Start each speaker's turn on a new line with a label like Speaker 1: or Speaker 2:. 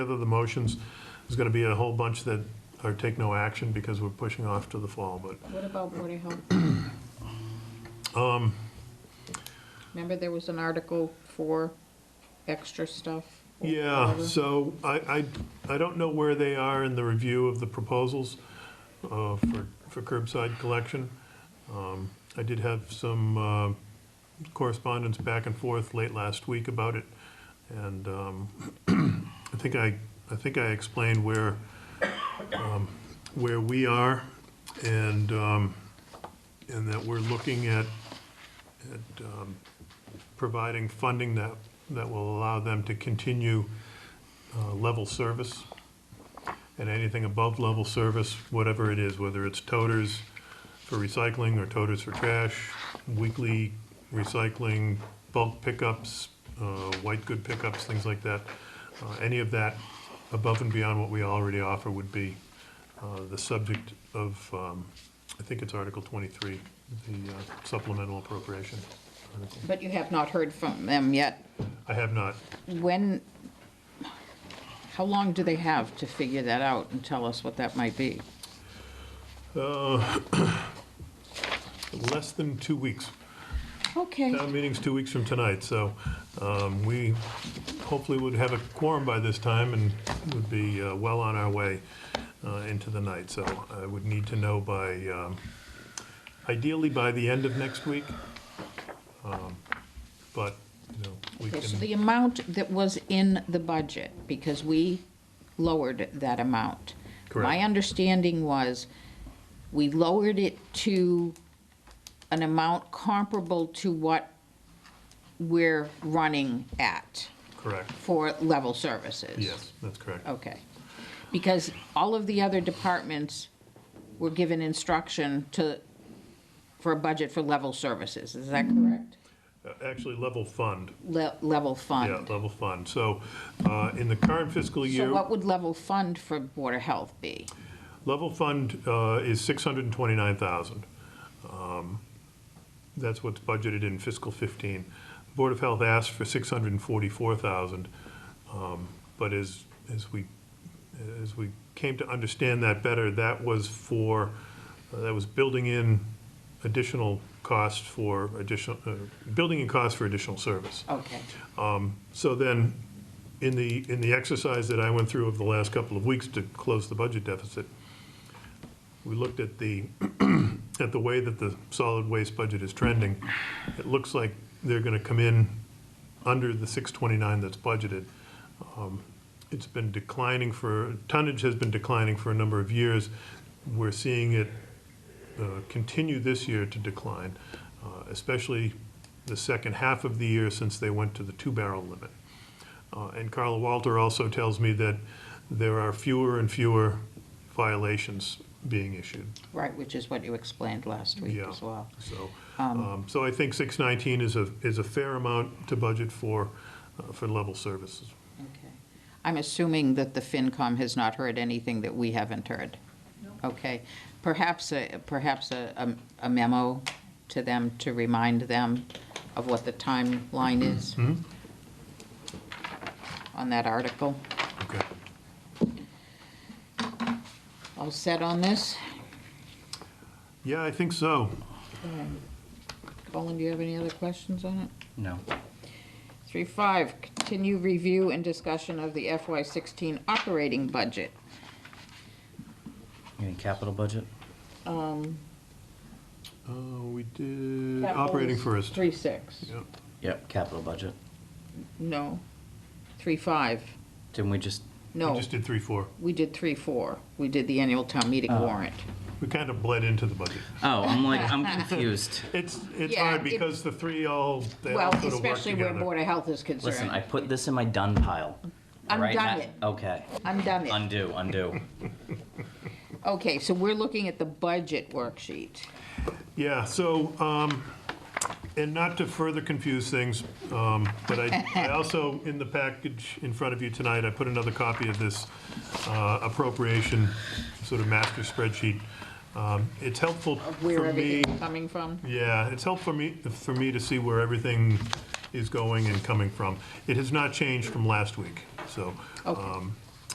Speaker 1: Together, the motions, there's going to be a whole bunch that are take no action because we're pushing off to the fall, but
Speaker 2: What about Board of Health?
Speaker 1: Um.
Speaker 2: Remember there was an article for extra stuff? or
Speaker 1: Yeah,
Speaker 2: whatever?
Speaker 1: so I, I, I don't know where they are in the review of the proposals uh, for, for curbside collection. Um, I did have some uh, correspondence back and forth late last week about it, and um, I think I, I think I explained where, um, where we are, and, um, and that we're looking at, at um, providing funding that, that will allow them to continue uh, level service. And anything above level service, whatever it is, whether it's toters for recycling or toters for trash, weekly recycling, bulk pickups, uh, white good pickups, things like that. Uh, Any of that above and beyond what we already offer would be uh, the subject of, um, I think it's Article 23, the uh, supplemental appropriation. article.
Speaker 2: But you have not heard from them yet.
Speaker 1: I have not.
Speaker 2: When, how long do they have to figure that out and tell us what that might be?
Speaker 1: Uh, Less than two weeks.
Speaker 2: Okay,
Speaker 1: Town meeting's two weeks from tonight, so um, we hopefully would have a quorum by this time and would be uh, well on our way uh, into the night. So I would need to know by, um, ideally by the end of next week. Um, But, you know, we
Speaker 2: Okay, so
Speaker 1: can,
Speaker 2: the amount that was in the budget, because we lowered that amount. My
Speaker 1: Correct.
Speaker 2: understanding was, we lowered it to an amount comparable to what we're running at
Speaker 1: correct.
Speaker 2: for level services.
Speaker 1: Yes, that's correct.
Speaker 2: Okay. Because all of the other departments were given instruction to, for a budget for level services, is that correct?
Speaker 1: Uh, Actually, level fund.
Speaker 2: Le- Level fund.
Speaker 1: Yeah, level fund. So uh, in the current fiscal year.
Speaker 2: So what would level fund for Board of Health be?
Speaker 1: Level fund uh, is 629,000. Um, That's what's budgeted in fiscal 15. Board of Health asked for 644,000, um, but as, as we, as we came to understand that better, that was for, uh, that was building in additional costs for additional, uh, building in costs for additional service.
Speaker 2: Okay,
Speaker 1: So then, in the, in the exercise that I went through over the last couple of weeks to close the budget deficit, we looked at the, at the way that the solid waste budget is trending. It looks like they're gonna come in under the six twenty-nine that's budgeted. Um, It's been declining for, tonnage has been declining for a number of years. We're seeing it uh, continue this year to decline, uh, especially the second half of the year since they went to the two-barrel limit. Uh, And Carla Walter also tells me that there are fewer and fewer violations being issued.
Speaker 2: right, which is what you explained last week
Speaker 1: Yeah.
Speaker 2: as well.
Speaker 1: So, um, so I think 619 is a, is a fair amount to budget for, uh, for level services.
Speaker 2: Okay. I'm assuming that the FinCom has not heard anything that we haven't heard? Okay, perhaps, a- perhaps a a- a memo to them to remind them of what the timeline is on that article?
Speaker 1: Okay.
Speaker 2: All set on this?
Speaker 1: Yeah, I think so.
Speaker 2: Colin, do you have any other questions on it?
Speaker 3: No.
Speaker 2: Three five, continue review and discussion of the FY sixteen operating budget.
Speaker 3: You mean capital budget?
Speaker 1: Uh, We did operating first.
Speaker 2: Three six,
Speaker 1: Yeah.
Speaker 3: Yep. Capital budget.
Speaker 2: no, three five,
Speaker 3: Didn't we just,
Speaker 1: We
Speaker 2: no,
Speaker 1: just did 3, 4.
Speaker 2: we did three four, we did the annual town meeting
Speaker 3: Uh,
Speaker 2: warrant.
Speaker 1: We kind of bled into the budget.
Speaker 3: oh, I'm like, I'm confused.
Speaker 1: It's, it's
Speaker 2: Yeah,
Speaker 1: hard
Speaker 2: it-
Speaker 1: because the three all, they all
Speaker 2: Well,
Speaker 1: sort of work
Speaker 2: especially where
Speaker 1: together.
Speaker 2: Board of Health is
Speaker 3: Listen, I
Speaker 2: concerned,
Speaker 3: put this in my done pile. Right
Speaker 2: Undone
Speaker 3: now-
Speaker 2: it.
Speaker 3: Okay,
Speaker 2: I'm done it.
Speaker 3: undo, undo.
Speaker 2: Okay, so we're looking at the budget worksheet,
Speaker 1: Yeah, so, um, and not to further confuse things, um, but I, I also, in the package in front of you tonight, I put another copy of this uh, appropriation sort of master spreadsheet. Um, It's helpful
Speaker 2: of
Speaker 1: for
Speaker 2: where
Speaker 1: me,
Speaker 2: everything's coming from.
Speaker 1: yeah, it's helpful for me, for me to see where everything is going and coming from. It has not changed from last week, so.
Speaker 2: Okay.
Speaker 1: um,